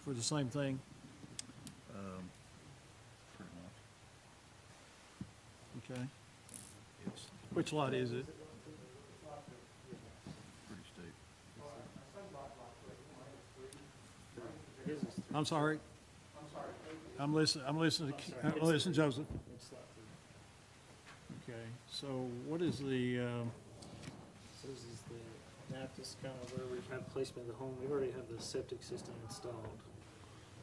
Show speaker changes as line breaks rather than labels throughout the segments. for the same thing?
um, pretty much.
Okay.
It's
Which lot is it?
pretty steep.
I'm sorry. I'm listening, I'm listening, to- I'm listening, Joseph. Okay, so what is the, um,
So this is the map that's kind of where we've had placement of the home. We already have the septic system installed.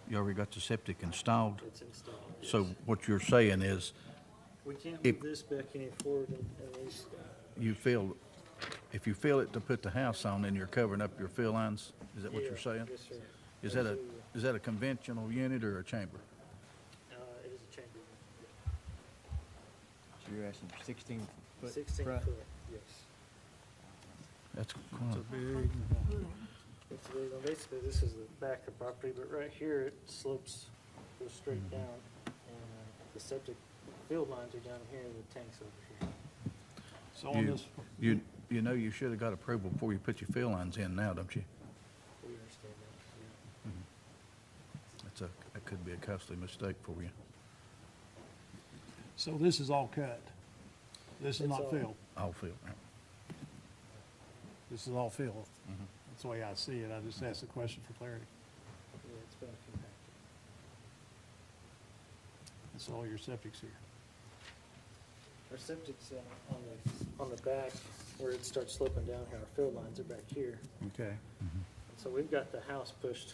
You already got the septic installed,
It's installed.
so
yes.
what you're saying is,
We can't
if-
move this back any forward un- unless,
you feel, if you fill it to put the house on, then you're covering up your fill lines? Is that what
Yeah,
you're saying?
Yes, sir.
Is that a,
Absolutely.
is that a conventional unit or a chamber?
Uh, it is a chamber.
So you're asking sixteen foot?
Sixteen
front?
foot, yes.
That's,
it's
quite-
a big,
It's, really- well, basically, this is the back of the property, but right here, it slopes, goes straight
Mm-hmm.
down. And uh, the septic field lines are down here and the tanks over here.
so on
You-
this,
you, you know you should have got approval before you put your fill lines in now, don't you?
We understand that, yeah.
That's a, that could be a costly mistake for you.
so this is all cut. This is
It's
not
all-
filled.
All fill, right?
This is all filled. That's the way I see it. I just asked the question for clarity.
Yeah, it's been compacted.
That's all your septic's here.
Our septic's uh, on the, on the back where it starts sloping down here, our fill lines are back here.
Okay.
And So we've got the house pushed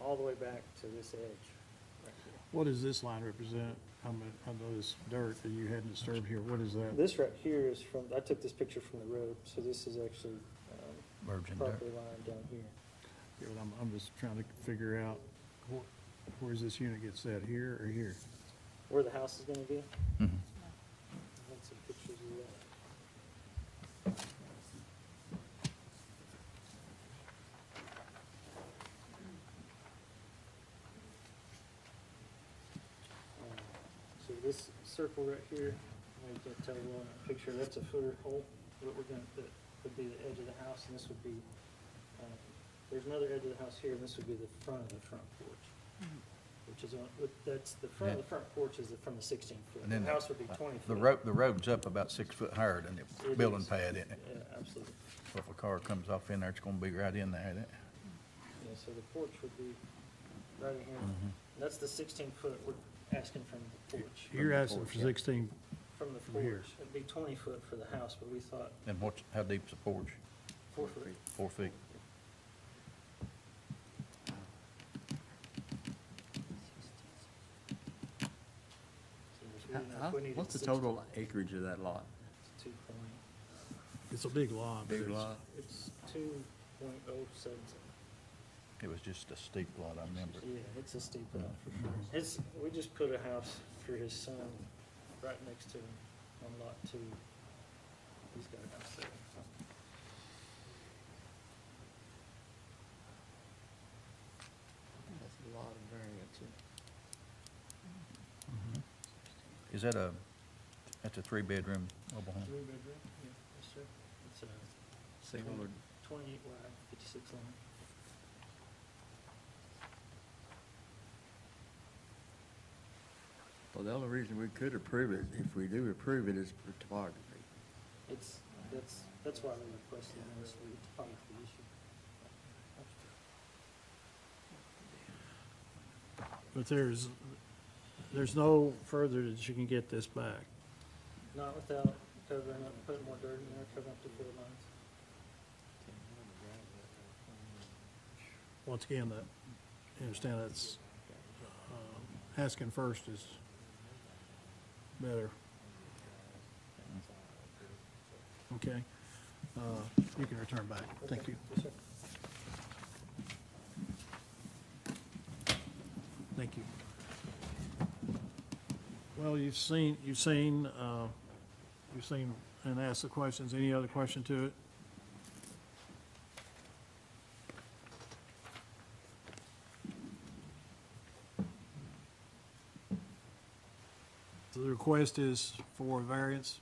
all the way back to this edge. right here.
What does this line represent? How much, how much this dirt that you had disturbed here, what is that?
This right here is from, I took this picture from the road, so this is actually um,
virgin dirt.
property line down here.
Yeah, but I'm, I'm just trying to figure out where, where's this unit get set, here or here?
Where the house is gonna be, I
Mhm.
had some pictures of that. Um, So this circle right here, I know you can't tell well in that picture, that's a footer hole, what we're gonna, that would be the edge of the house, and this would be, um, there's another edge of the house here, and this would be the front of the front porch. Which is on, with- that's, the front of the front porch is the- from the sixteen foot,
And
the
then
house would be twenty
The
foot.
road, the road's up about six foot higher than the
It
building
is.
pad, isn't it?
Yeah, absolutely.
So If a car comes off in there, it's gonna be right in there, isn't it?
Yeah, so the porch would be right in here.
Mm-hmm.
That's the sixteen foot we're asking from the porch,
You're asking for sixteen,
from the
From here.
porch. It'd be twenty foot for the house, but we thought
And what's, how deep's the porch?
four foot.
Four feet.
So we
How-
didn't know
how-
if we needed
What's the
16.
total acreage of that lot?
It's Two point,
it's a big lot. but it's-
it's two point oh seven.
It was just a steep lot, I remember.
Yeah, it's a steep
Mm-hmm.
lot for sure. It's, we just put a house for his son right next to him on lot two. He's got a house there.
That's a lot of variance.
Mm-hmm.
Is that a, that's a three-bedroom mobile home?
Three bedroom? Yeah, yes, sir. It's a
Single or
twenty-eight wide, fifty-six long.
Well, the only reason we could approve it, if we do approve it, is for topography.
It's, that's, that's why we requested this, we filed the issue.
But there's, there's no further that you can get this back.
Not without covering up, putting more dirt in there, covering up the field lines.
Once again, that, you understand that's, um, asking first is better. Okay, uh, you can return back, thank you.
Yes, sir.
Thank you. Well, you've seen, you've seen, uh, you've seen and asked the questions. Any other question to it? So The request is for variance